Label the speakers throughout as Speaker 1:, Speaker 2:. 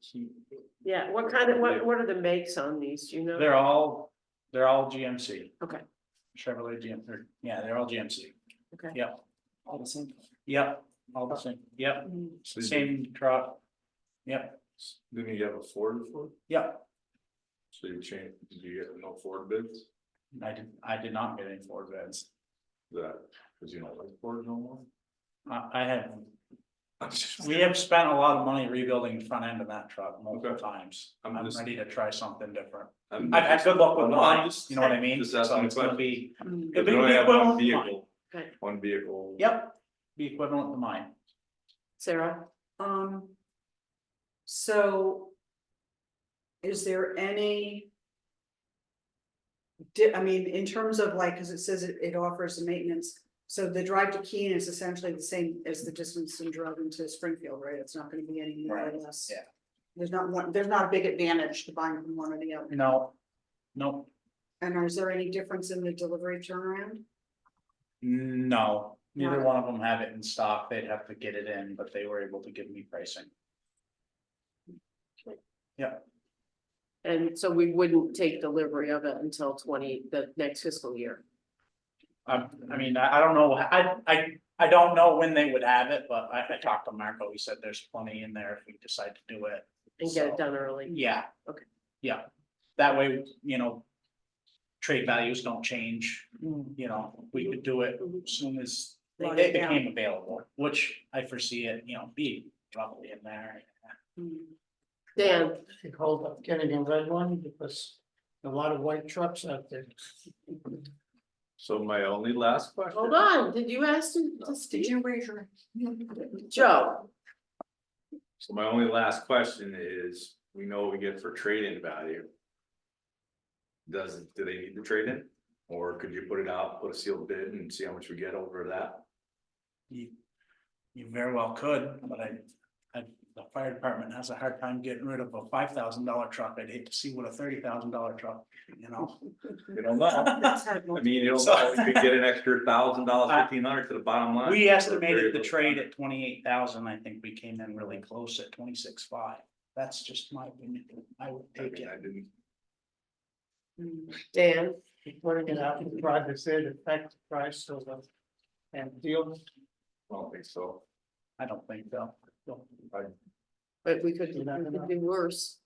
Speaker 1: cheap.
Speaker 2: Yeah, what kind of, what, what are the makes on these, do you know?
Speaker 1: They're all, they're all GMC.
Speaker 2: Okay.
Speaker 1: Chevrolet GM, or- yeah, they're all GMC.
Speaker 2: Okay.
Speaker 1: Yep,
Speaker 2: all the same.
Speaker 1: yep, all the same, yep, same truck. Yep,
Speaker 3: Didn't you have a Ford before?
Speaker 1: yep,
Speaker 3: So you changed, did you get no Ford bids?
Speaker 1: I did, I did not get any Ford vans.
Speaker 3: That, cause you don't like Ford no more?
Speaker 1: I, I have,
Speaker 3: I'm just-
Speaker 1: we have spent a lot of money rebuilding the front end of that truck multiple
Speaker 3: Okay.
Speaker 1: times.
Speaker 3: I'm
Speaker 1: I'm
Speaker 3: just-
Speaker 1: ready to try something different.
Speaker 3: I'm
Speaker 1: I've had good luck with
Speaker 3: No, I'm
Speaker 1: mine,
Speaker 3: just-
Speaker 1: you know what I mean?
Speaker 3: just asking
Speaker 1: So
Speaker 3: a
Speaker 1: it's gonna
Speaker 3: question.
Speaker 1: be,
Speaker 2: Mm,
Speaker 1: it'd
Speaker 3: Cause
Speaker 1: be
Speaker 3: we only have one
Speaker 1: equivalent to mine.
Speaker 3: vehicle,
Speaker 2: okay.
Speaker 3: one vehicle.
Speaker 1: Yep, be equivalent to mine.
Speaker 2: Sarah,
Speaker 4: Um. So. Is there any? Di- I mean, in terms of like, cause it says it, it offers the maintenance, so the drive to Keene is essentially the same as the distance from Dresden to Springfield, right? It's not gonna be any more
Speaker 1: Right,
Speaker 4: or less.
Speaker 1: yeah.
Speaker 4: There's not one, there's not a big advantage to buying from one or the other.
Speaker 1: No, no,
Speaker 4: And is there any difference in the delivery turnaround?
Speaker 1: no, neither
Speaker 4: No.
Speaker 1: one of them have it in stock, they'd have to get it in, but they were able to give me pricing.
Speaker 2: and so we wouldn't take delivery of it until twenty, the next fiscal year.
Speaker 1: I, I mean, I, I don't know, I, I, I don't know when they would have it, but I, I talked to Marco, he said there's plenty in there if we decide to do it.
Speaker 2: And get
Speaker 1: So,
Speaker 2: it done early,
Speaker 1: Yeah.
Speaker 2: Okay.
Speaker 1: Yeah, that way, you know, trade values don't change,
Speaker 3: mm.
Speaker 1: you know, we could do it as soon as
Speaker 4: Lock
Speaker 1: it
Speaker 4: it down.
Speaker 1: became available, which I foresee it, you know, be probably in there.
Speaker 2: Dan,
Speaker 5: Take hold of getting a red one because a lot of white trucks out there.
Speaker 3: So my only last question.
Speaker 2: hold on, did you ask him to
Speaker 4: Did
Speaker 2: speak?
Speaker 4: you raise your?
Speaker 2: Joe,
Speaker 3: So my only last question is, we know what we get for trade-in value. Does, do they need the trade-in? Or could you put it out, put a sealed bid and see how much we get over that?
Speaker 1: You, you very well could, but I, I, the fire department has a hard time getting rid of a five thousand dollar truck, I'd hate to see what a thirty thousand dollar truck, you know?
Speaker 3: You don't know. I mean, you don't
Speaker 1: So-
Speaker 3: know, you could get an extra thousand dollars, fifteen hundred to the bottom line.
Speaker 1: We estimated the trade at twenty-eight thousand, I think we came in really close at twenty-six five, that's just my opinion, I would
Speaker 3: I
Speaker 1: take
Speaker 3: mean,
Speaker 1: it.
Speaker 3: I didn't,
Speaker 2: Dan,
Speaker 5: Putting it out in the drive, say it affect the price of the. And deal,
Speaker 3: I don't think so.
Speaker 1: I don't think so. No.
Speaker 2: but we could, we
Speaker 5: You're not
Speaker 2: could
Speaker 5: gonna-
Speaker 2: do worse.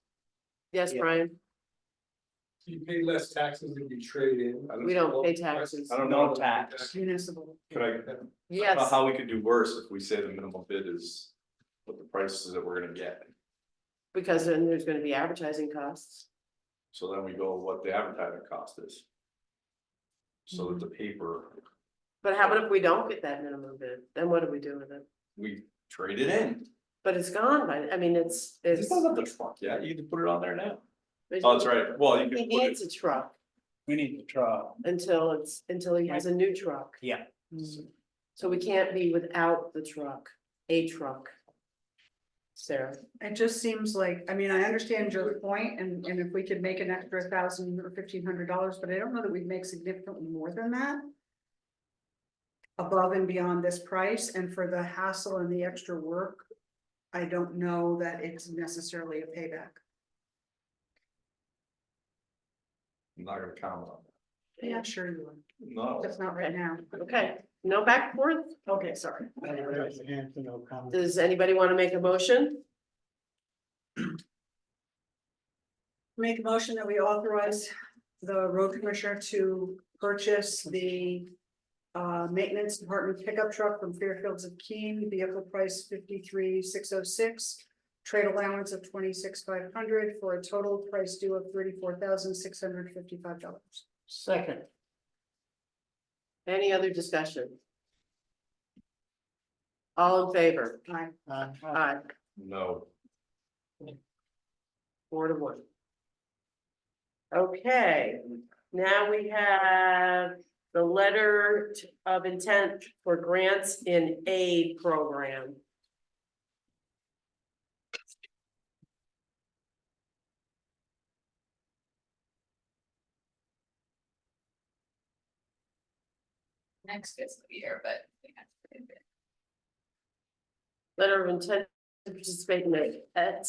Speaker 2: Yes,
Speaker 1: Yeah.
Speaker 2: Brian,
Speaker 6: You pay less taxes if you trade in.
Speaker 2: we don't pay taxes,
Speaker 3: I don't
Speaker 1: No
Speaker 3: know,
Speaker 1: tax.
Speaker 4: Municipal.
Speaker 3: could I, I don't know
Speaker 2: yes,
Speaker 3: how we could do worse if we say the minimum bid is what the prices that we're gonna get.
Speaker 2: because then there's gonna be advertising costs.
Speaker 3: So then we go what the advertising cost is. So
Speaker 2: Mm-hmm.
Speaker 3: that the paper,
Speaker 2: But how about if we don't get that minimum bid, then what do we do with it?
Speaker 3: we trade it in.
Speaker 2: But it's gone by, I mean, it's,
Speaker 3: It's
Speaker 2: it's.
Speaker 3: not the truck yet, you can put it on there now. Oh, that's right, well, you
Speaker 2: He
Speaker 3: can put it,
Speaker 2: needs a truck
Speaker 1: We need to try,
Speaker 2: until it's, until he has a new truck.
Speaker 1: yeah,
Speaker 2: So we can't be without the truck, a truck. Sarah,
Speaker 4: It just seems like, I mean, I understand Joe's point, and, and if we could make an extra thousand or fifteen hundred dollars, but I don't know that we'd make significantly more than that. Above and beyond this price, and for the hassle and the extra work, I don't know that it's necessarily a payback.
Speaker 3: I'm not gonna comment on
Speaker 4: Yeah, sure you would,
Speaker 3: that, no.
Speaker 4: just not right now.
Speaker 2: okay, no back and forth,
Speaker 4: Okay, sorry.
Speaker 5: I raise a hand to no comment.
Speaker 2: does anybody wanna make a motion?
Speaker 4: Make a motion that we authorize the road commissioner to purchase the. Uh, maintenance department pickup truck from Fairfields of Keene, vehicle price fifty-three, six oh six. Trade allowance of twenty-six, five hundred for a total price due of thirty-four thousand, six hundred fifty-five dollars.
Speaker 5: Second,
Speaker 2: Any other discussion? All in favor?
Speaker 4: I,
Speaker 5: uh, uh,
Speaker 2: Aye,
Speaker 3: No,
Speaker 2: four to one. Okay, now we have the letter of intent for grants in aid program.
Speaker 7: next fiscal year, but. we have to do it.
Speaker 2: letter of intent to participate in the